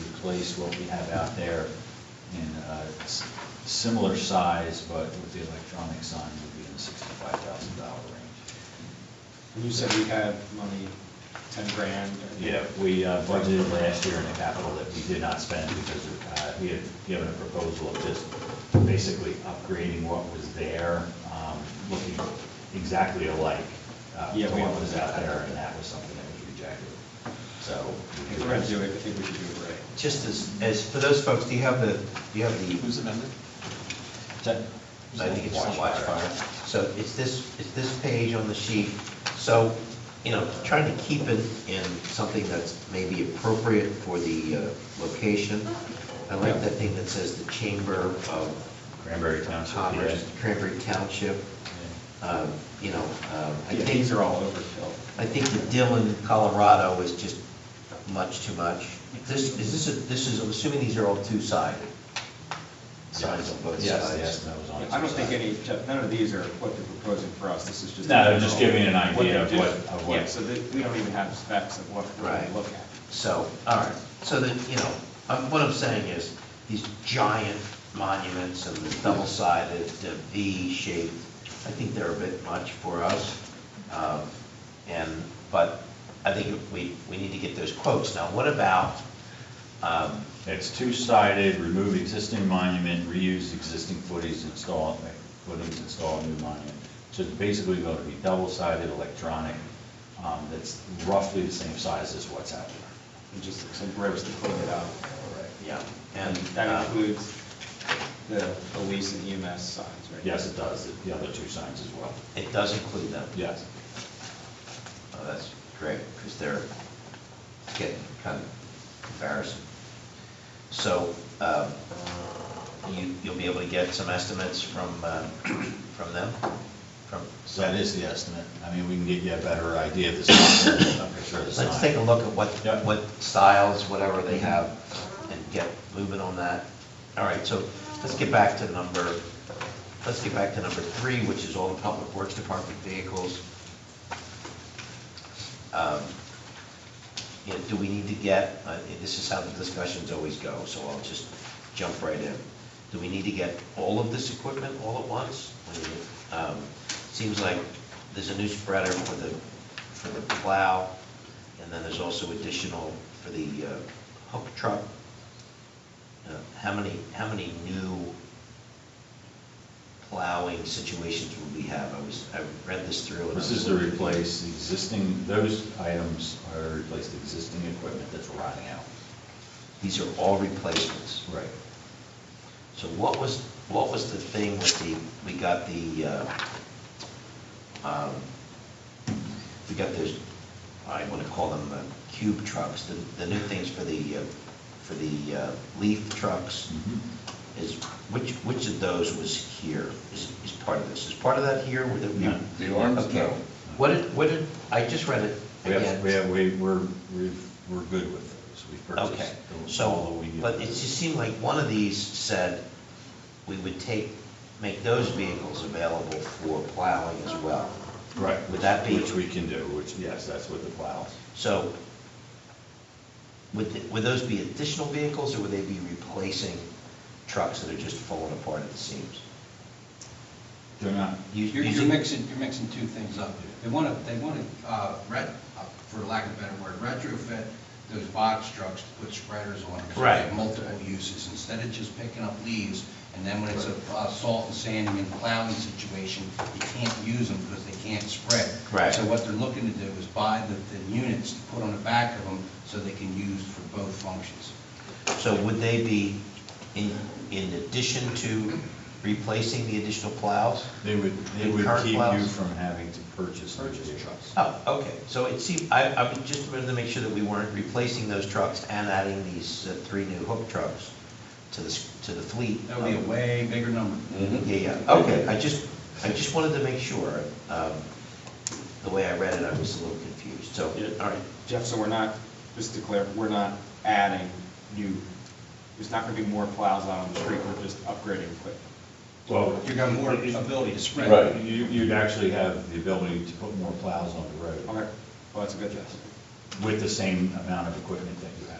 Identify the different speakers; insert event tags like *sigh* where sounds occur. Speaker 1: replace what we have out there in uh, s- similar size, but with the electronic sign would be in the sixty-five thousand dollar range.
Speaker 2: And you said we have money, ten grand? and-
Speaker 1: Yeah, we uh, budgeted last year in the capital that we did not spend because uh, we had given a proposal of just basically upgrading what was there, um, looking exactly alike uh, to
Speaker 2: Yeah, we-
Speaker 1: what was out there, and that was something that was rejected. So.
Speaker 2: If we're gonna do it, I think we should do it right.
Speaker 3: Just as, as, for those folks, do you have the, do you have the?
Speaker 4: Who's the member?
Speaker 3: I think it's the watch fire. So it's this, it's this page on the sheet. So, you know, trying to keep it in something that's maybe appropriate for the uh, location. I like that thing that says the Chamber of
Speaker 1: Cranberry Township.
Speaker 3: Commerce, Cranberry Township,
Speaker 1: PA.
Speaker 3: um, you know, um, I
Speaker 2: Yeah,
Speaker 3: think.
Speaker 2: these are all overkill.
Speaker 3: I think the Dillon, Colorado is just much too much. This, is this, a- this is, I'm assuming these are all two-sided? Signs on both
Speaker 1: Yes,
Speaker 3: sides?
Speaker 1: yes, that was on.
Speaker 2: I don't think any, none of these are what they're proposing for us, this is just.
Speaker 1: No, they're just
Speaker 2: general-
Speaker 1: giving you an idea of
Speaker 2: they do.
Speaker 1: what- of what-
Speaker 2: Yeah, so that, we don't even have specs of what we're
Speaker 3: Right.
Speaker 2: gonna look at.
Speaker 3: So, all right, so that, you know, um, what I'm saying is, these giant monuments and the double-sided, the V-shaped, I think they're a bit much for us. Um, And, but I think we, we need to get those quotes. Now, what about, um,
Speaker 1: It's two-sided, remove existing monument, reuse existing footings, install, footings, install a new monument. So it's basically going to be double-sided electronic, um, that's roughly the same size as what's out there.
Speaker 2: And just some bricks to clean it up.
Speaker 3: yeah, and.
Speaker 2: That
Speaker 1: uh,
Speaker 3: um,
Speaker 2: includes the police and EMS signs, right?
Speaker 1: Yes, it does, the other two signs as well.
Speaker 3: It does include them?
Speaker 1: Yes.
Speaker 3: Oh, that's great, because they're getting kind of embarrassing. So um, you, you'll be able to get some estimates from, uh, *clears throat* from them? From,
Speaker 1: So that is the estimate. I mean, we can get you a better idea of the size, I'm sure the size.
Speaker 3: let's take a look at what,
Speaker 1: Yeah.
Speaker 3: what styles, whatever they have, and get moving on that. All right, so let's get back to number, let's get back to number three, which is all the public works department vehicles. Um, you know, do we need to get, uh, this is how the discussions always go, so I'll just jump right in. Do we need to get all of this equipment all at once? I mean, it, um, Seems like there's a new spreader for the, for the plow, and then there's also additional for the uh, hook truck. Uh, How many, how many new plowing situations would we have? I was, I read this through. and I
Speaker 1: This
Speaker 3: was
Speaker 1: is to
Speaker 3: wondering-
Speaker 1: replace existing, those items are to replace the existing equipment that's rotting out.
Speaker 3: These are all replacements.
Speaker 1: Right.
Speaker 3: So what was, what was the thing with the, we got the, uh, um, we got those, I want to call them uh, cube trucks, the, the new things for the, uh, for the uh, leaf trucks, is, which, which of those was here, is, is part of this? Is part of that here? Were there-
Speaker 1: No.
Speaker 5: The arms,
Speaker 3: Okay.
Speaker 5: no.
Speaker 3: What did, what did, I just read it
Speaker 1: We
Speaker 3: again.
Speaker 1: have, we have, we- we're, we've- we're good with those. We've
Speaker 3: Okay,
Speaker 1: purchased the- all
Speaker 3: so,
Speaker 1: that we.
Speaker 3: but it just seemed like one of these said we would take, make those vehicles available for plowing as well.
Speaker 1: Right.
Speaker 3: Would that be,
Speaker 1: Which we can do, which, yes, that's with the plows.
Speaker 3: so, would, th- would those be additional vehicles, or would they be replacing trucks that are just falling apart at the seams?
Speaker 1: They're not,
Speaker 3: You-
Speaker 5: You're,
Speaker 3: you
Speaker 5: you're
Speaker 3: think-
Speaker 5: mixing, you're mixing two things up. They want to, they want to, ret, uh, for lack of a better word, retrofit those box trucks to put spreaders on. 'cause they have
Speaker 3: Right.
Speaker 5: Multiple uses, instead of just picking up leaves, and then when it's a uh, salt and sanding and plowing situation, you can't use them because they can't spread.
Speaker 3: Right.
Speaker 5: So what they're looking to do is buy the, the units to put on the back of them, so they can use for both functions.
Speaker 3: So would they be in, in addition to replacing the additional plows?
Speaker 1: they would, they
Speaker 3: In
Speaker 1: would
Speaker 3: current
Speaker 1: keep you
Speaker 3: plows?
Speaker 1: from having to purchase. new vehicles.
Speaker 3: Oh, okay, so it seemed, I, I would just wanted to make sure that we weren't replacing those trucks and adding these uh, three new hook trucks to the, s- to the fleet. Um,
Speaker 5: That would be a way bigger number.
Speaker 3: Yeah, yeah, okay, I just, I just wanted to make sure, um, the way I read it, I was a little confused, so, all right,
Speaker 2: Jeff, so we're not, just to clarify, we're not adding new, there's not gonna be more plows out on the street, we're just upgrading equipment.
Speaker 1: Well.
Speaker 5: You got more
Speaker 1: you-
Speaker 5: ability to spread.
Speaker 1: Right, you, you'd actually have the ability to put more plows on the road
Speaker 2: Okay, well, that's a good, Jeff.
Speaker 1: with the same amount of equipment that you have